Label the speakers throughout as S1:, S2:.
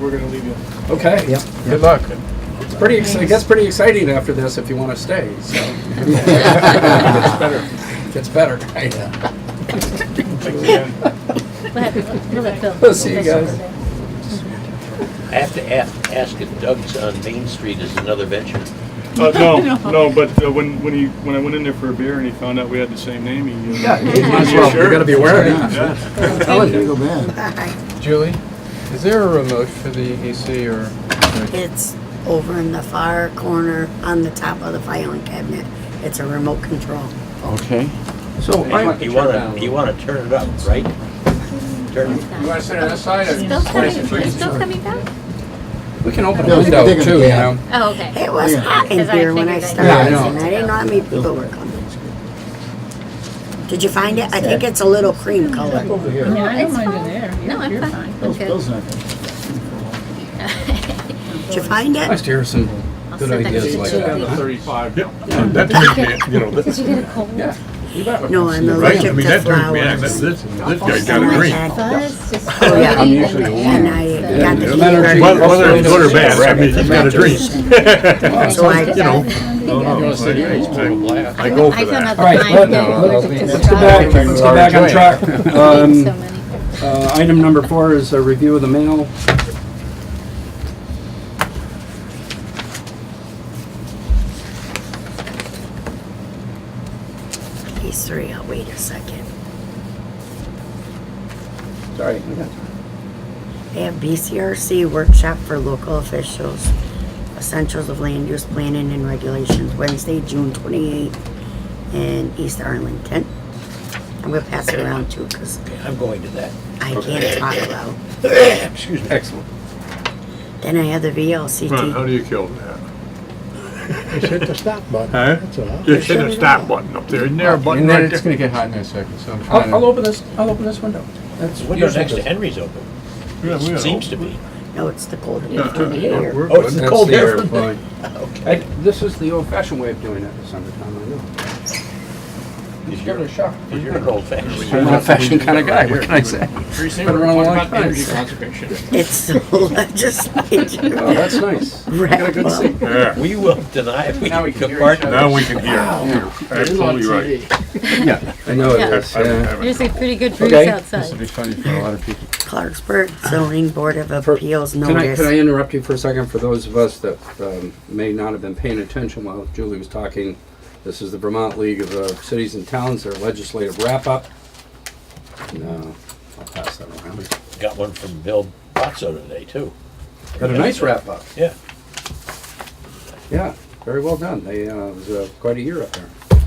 S1: we're gonna leave you. Okay.
S2: Yep.
S1: Good luck. It's pretty, ex- it gets pretty exciting after this if you want to stay, so. Gets better. Gets better.
S3: Uh,
S4: We'll have- we'll let Phil-
S1: We'll see you
S4: Phil-
S1: guys.
S5: I have to a- ask if Doug's on Main Street is another venture.
S3: Uh, no, no, but uh, when, when he, when I went in there for a beer and he found out we had the same name, he. uh,
S1: Yeah, you might as
S3: Yeah,
S1: well,
S3: sure.
S1: you gotta be wearing it.
S3: Yeah.
S2: Telling you, go man.
S6: Julie, is there a remote for the EDC or?
S7: It's over in the far corner on the top of the filing cabinet. It's a remote control.
S6: Okay.
S2: So I,
S5: You wanna, you wanna turn it up, right? Turn it.
S1: You wanna sit on this side?
S4: Phil coming- is Phil coming back?
S1: We can open a
S2: No, they can-
S1: window
S2: they can-
S1: too, you
S2: yeah.
S1: know?
S4: Oh, okay.
S7: It was
S2: Yeah.
S7: hot in
S4: Because I
S7: here when I
S4: figured that-
S7: started.
S1: Yeah, I know.
S7: and I didn't know how many people were coming. Did you find it? I think it's a little cream color.
S2: over here.
S4: No, I don't mind you there. No, I'm fine. I'm
S2: Bill's,
S4: good.
S2: Bill's not gonna-
S7: Did you find
S1: Nice
S7: it?
S1: to hear some
S4: I'll
S1: good
S4: send that
S1: ideas
S4: to
S1: like
S4: Julie.
S1: that.
S8: Thirty-five. That turned me, you know,
S4: Did
S8: that's,
S4: you get a cold?
S1: Yeah. You bet.
S7: No, I'm
S8: right, I
S7: allergic
S8: mean,
S7: to
S8: that turned me, that,
S7: flowers.
S8: this, this guy got
S7: And
S8: a
S7: I
S8: green.
S7: had-
S4: Buzz, just.
S7: Oh, yeah.
S4: floating in
S6: usually
S4: the
S6: warm.
S7: And
S4: air.
S7: I got the
S1: Yeah.
S7: heat.
S1: Well,
S8: Whether whether it's good or bad, I mean, he's got a green.
S7: So I,
S8: You know, no, no, I- I, I I go
S4: I
S8: for
S4: don't know
S8: that.
S4: the
S1: All right,
S4: kind
S1: let-
S4: that
S6: no,
S4: allergic
S6: let-
S4: to
S6: let's
S2: Let's go back,
S4: strawberries.
S2: let's go back on track.
S4: Eating
S2: Um,
S4: so many.
S1: Uh, Item number four is a review of the mail.
S7: these three, I'll wait a second.
S1: Sorry.
S7: They have BCRC workshop for local officials, essentials of land use planning and regulations, Wednesday, June twenty-eighth in East Arlington. I'm gonna pass it around too, cause
S5: I'm going to that.
S7: I can't talk loud.
S5: Excuse me.
S1: Excellent.
S7: Then I have the
S8: Well, How
S7: VLCT.
S8: do you kill that?
S9: Just hit the stop button.
S8: Huh?
S9: That's all.
S8: You hit a stop button up there, isn't there a button
S6: And then
S8: right
S6: it's
S8: there?
S6: gonna get hot in a second, so I'm trying
S1: I'll, I'll
S6: to.
S1: open this, I'll open this window.
S5: The Window next to Henry's open,
S8: Yeah, we are.
S5: seems to be.
S7: No, it's the cold
S8: Yeah,
S7: air
S8: yeah,
S7: from the
S8: we're-
S7: air.
S8: we're
S5: Oh, it's
S8: good.
S5: the
S6: That's
S5: cold
S6: the
S5: air.
S6: airplane.
S1: I- This is the old-fashioned way of doing it, this summertime, I know.
S5: Is
S1: Give it a
S5: your,
S1: shot.
S5: is your old fashioned?
S1: I'm an old-fashioned kind of guy, what can I say?
S3: Teresa,
S1: Been
S3: we're
S1: around a
S3: talking
S1: long
S3: about
S1: time.
S3: energy conservation.
S7: It's the legislature.
S1: Oh, that's nice. You got a good seat.
S8: Yeah,
S5: We will deny if we
S1: Now we can
S5: took
S1: hear
S5: part
S1: each
S5: in
S1: other.
S8: now we can hear. Absolutely right.
S1: I know it
S4: Yeah.
S1: is, yeah.
S4: There's a pretty good breeze
S1: Okay.
S6: This would
S4: outside.
S6: be funny for a lot of people.
S7: Clarksburg Zoning Board of Appeals
S1: Can I, can I
S7: notice.
S1: interrupt you for a second? For those of us that um, may not have been paying attention while Julie was talking, this is the Vermont League of uh, Cities and Towns, their legislative wrap-up. No, I'll pass that around.
S5: Got one from Bill Botso today, too.
S1: Got a nice wrap-up.
S5: Yeah.
S1: Yeah, very well done. They, uh, it was uh, quite a year up there.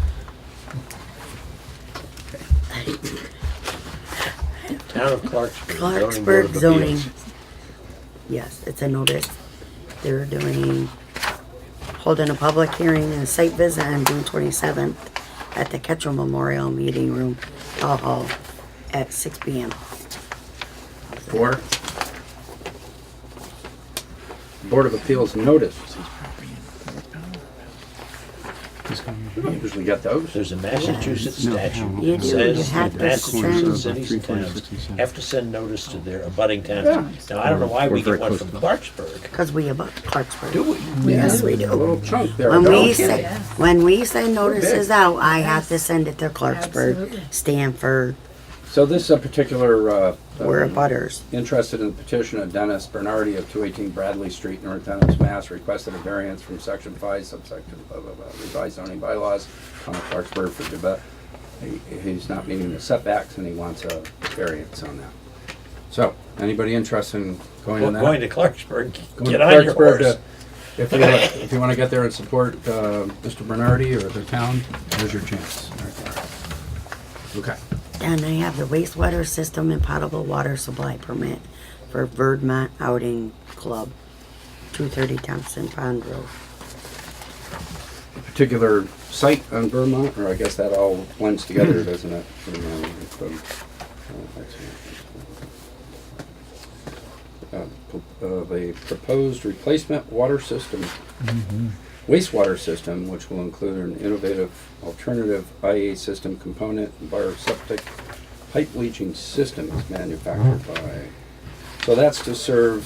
S5: Town of Clarksburg. Zoning Board
S7: Clarksburg
S5: of
S7: zoning.
S5: Appeals.
S7: Yes, it's a notice. They're doing, holding a public hearing and a site visit on June twenty-seventh at the Ketchum Memorial Meeting Room, Hall Hall, at six P M.
S1: Four. Board of Appeals notice. Usually got those.
S5: There's a Massachusetts statute
S7: You
S5: that
S7: do, you
S5: says
S7: have
S5: that
S7: to send-
S5: Massachusetts cities and towns have to send notice to their abutting towns. Now, I don't know why we get one from Clarksburg.
S7: Cause we about Clarksburg.
S1: Do we?
S7: Yes, we
S1: A
S7: do.
S1: little chunk there.
S7: When we
S1: Okay.
S7: say, when we send notices out, I have to send it to Clarksburg,
S4: Absolutely.
S7: Stanford,
S1: So this is a particular, uh,
S7: we're
S1: um,
S7: butters.
S1: interested in the petition of Dennis Bernardi of 218 Bradley Street, North Dennis, Mass. Requested a variance from section five subsection blah, blah, blah, revised zoning bylaws, town of Clarksburg for Tibet. He- He's not meeting the setbacks and he wants a variance on that. So, anybody interested in going
S5: Well,
S1: on that?
S5: Going to Clarksburg,
S1: Going
S5: get
S1: to
S5: on your
S1: Clarksburg to-
S5: horse.
S1: If you, wanna- if you want to get there and support uh, Mr. Bernardi or the town, there's your chance. Okay.
S7: And I have the wastewater system and potable water supply permit for Verdmont Outing Club, two thirty Thompson Pond Road.
S1: particular site on Vermont, or I guess that all blends together, doesn't it? Vermont and from- Uh, pro- Of a proposed replacement water system, wastewater system, which will include an innovative alternative IA system component and bioseptic pipe leaching systems manufactured by. So that's to serve